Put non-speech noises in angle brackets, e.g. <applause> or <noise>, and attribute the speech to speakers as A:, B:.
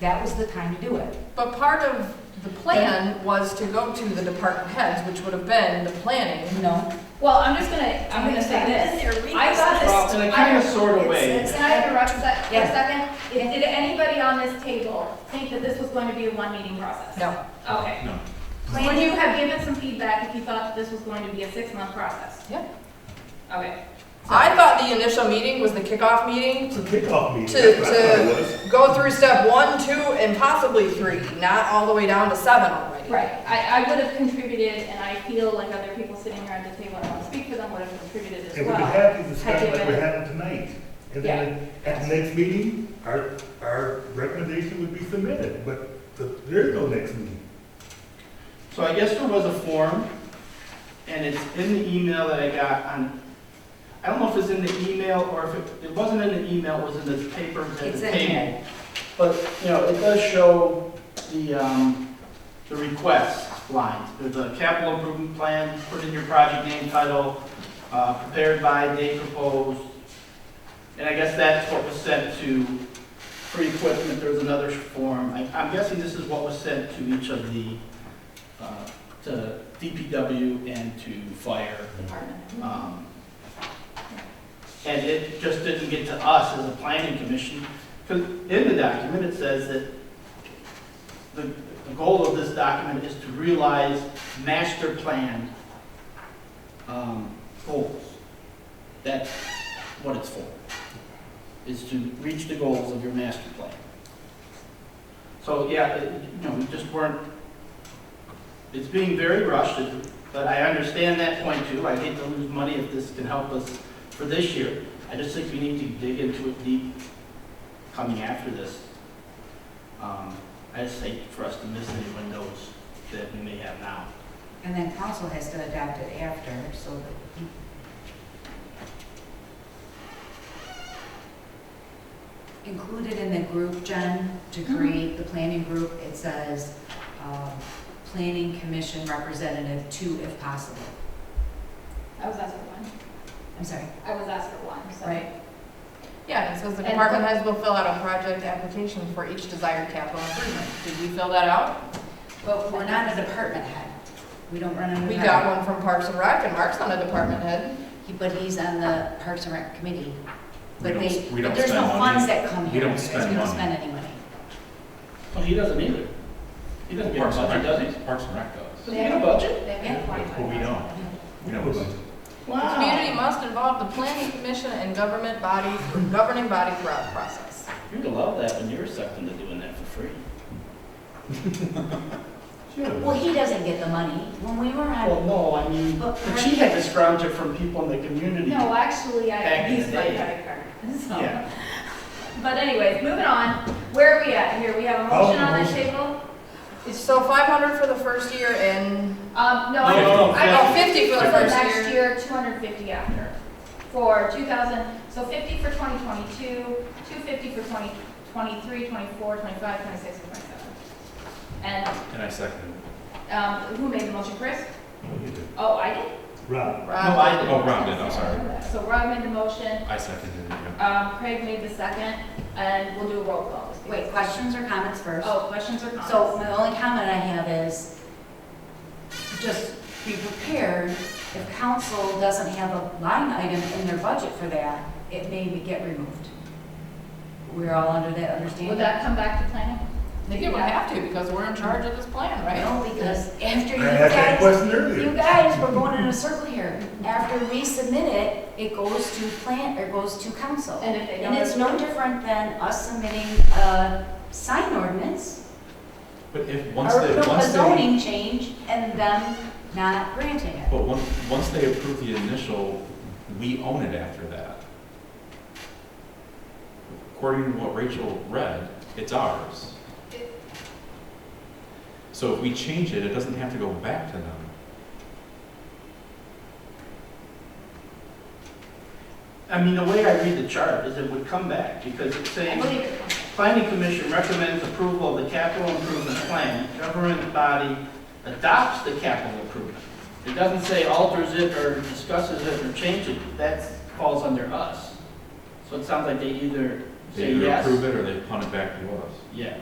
A: That was the time to do it.
B: But part of the plan was to go to the department heads, which would have been the planning.
A: No,
C: Well, I'm just gonna, I'm gonna say this. I got
D: Well,
C: this.
D: in a kind of
C: I-
D: sort of way,
C: Can I interrupt that for a
A: Yes.
C: second? Did did anybody on this table think that this was going to be a one meeting process?
B: No,
C: Okay.
D: No.
C: Would you have given some feedback if you thought that this was going to be a six month process?
B: Yeah.
C: Okay.
B: I thought the initial meeting was the kickoff meeting
E: It's a kickoff meeting.
B: to,
E: That's what it was.
B: to go through step one, two, and possibly three, not all the way down to seven already.
C: Right, I, I would have contributed, and I feel like other people sitting here at the table, I want to speak for them, would have contributed as
E: And we'd be
C: well.
E: happy to discuss like we're having tonight. And then at the next meeting, our, our recommendation would be submitted, but the- there is no next meeting.
D: so I guess there was a form, and it's in the email that I got on, I don't know if it's in the email, or if it, it wasn't in the email, it was in the paper at
A: It's
D: the
A: in
D: table. But, you know, it does show the, um, the request lines, there's a capital improvement plan, put in your project name title, uh, prepared by, date proposed, and I guess that's what was sent to free equipment, there was another form, I, I'm guessing this is what was sent to each of the, uh, to DPW and to fire. um, And it just didn't get to us as a planning commission, because in the document, it says that the, the goal of this document is to realize master plan, um, goals. That's what it's for, is to reach the goals of your master plan. So, yeah, it- you know, we just weren't, it's being very rushed, but I understand that point too. I hate to lose money if this can help us for this year. I just think we need to dig into it deep coming after this. Um, I just hate for us to miss any windows that we may have now.
A: and then council has to adopt it after, so that. Included in the group, Jen, to
B: Mm-hmm.
A: create the planning group, it says, um, planning commission representative two if possible.
C: I was asked for one,
A: I'm sorry,
C: I was asked for one, so.
A: Right.
B: Yeah, and it says the
C: And-
B: department heads will fill out a project application for each desired capital improvement. Did we fill that out?
A: but we're not a department head. We don't run a
B: We
A: department.
B: got one from Parks and Rec, and Mark's not a department head.
A: He- But he's on the Parks and Rec committee.
F: We
A: But
F: don't-
A: they,
F: we
A: but
F: don't
A: there's no
F: spend money.
A: funds that come
F: We
A: here.
F: don't
A: It's-
F: spend
A: We don't
F: money.
A: spend any money.
D: Well, he doesn't either. He doesn't get a
F: Parks and
D: budget,
F: Rec
D: does he?
F: Parks and Rec does.
D: Does he get a budget?
C: They have
A: Yeah.
C: twenty-five
F: But we
C: thousand.
F: don't. We don't.
D: Wow.
B: Community must involve the planning commission and government body, governing body throughout the process.
D: You'd love that when you were sucked into doing that for free.
A: Well, he doesn't get the money. When we were on,
D: Well, no, I mean,
A: But-
D: but she had to scrounge it from people in the community. Um,
C: No, actually, I
D: Back in
C: used
D: the
C: my
D: day.
C: credit card, <laughs> so.
D: Yeah.
C: But anyways, moving on, where are we at here? We have a motion on the table?
B: So five hundred for the first year and,
C: Um, no,
D: No, no, no,
C: I, I
B: oh,
C: got
B: 50 for
C: for
B: the
C: the
B: first
C: next
B: year.
C: year, two hundred fifty after. For two thousand, so fifty for twenty twenty-two, two fifty for twenty twenty-three, twenty-four, twenty-five, twenty-six, and twenty-seven. And,
F: And I second it.
C: um, who made the motion, Chris? Oh, I did?
E: Rob,
D: No, I didn't.
F: Oh, Rob did, I'm sorry.
C: So Rob made the motion,
F: I seconded it, yeah.
C: um, Craig made the second, and we'll do a roll call. this
A: wait,
C: week.
A: questions or comments first?
C: Oh, questions or comments?
A: So my only comment I have is, just be prepared, if council doesn't have a line item in their budget for that, it may be- get removed. We're all under that
C: Would
A: understanding.
C: that come back to planning?
B: I think it would have to because we're in charge of this plan, right?
A: No, because after
E: I
A: you
E: asked that
A: guys,
E: question
A: you
E: earlier.
A: guys were going in a circle here. After we submit it, it goes to plant, or goes to council.
C: And if they don't.
A: And it's no different than us submitting a sign ordinance
F: But if, once
A: or
F: they,
A: no, a
F: once they,
A: zoning change and them not granting it.
F: but once, once they approve the initial, we own it after that. According to what Rachel read, it's ours. So if we change it, it doesn't have to go back to them.
D: I mean, the way I read the chart is it would come back, because it's
C: I
D: saying,
C: believe it comes back.
D: planning commission recommends approval of the capital improvement plan, government body adopts the capital improvement. It doesn't say alters it, or discusses it, or changes it, that falls under us. So it sounds like they either
F: They
D: say
F: either
D: yes.
F: approve it or they punt it back to us.
D: Yeah,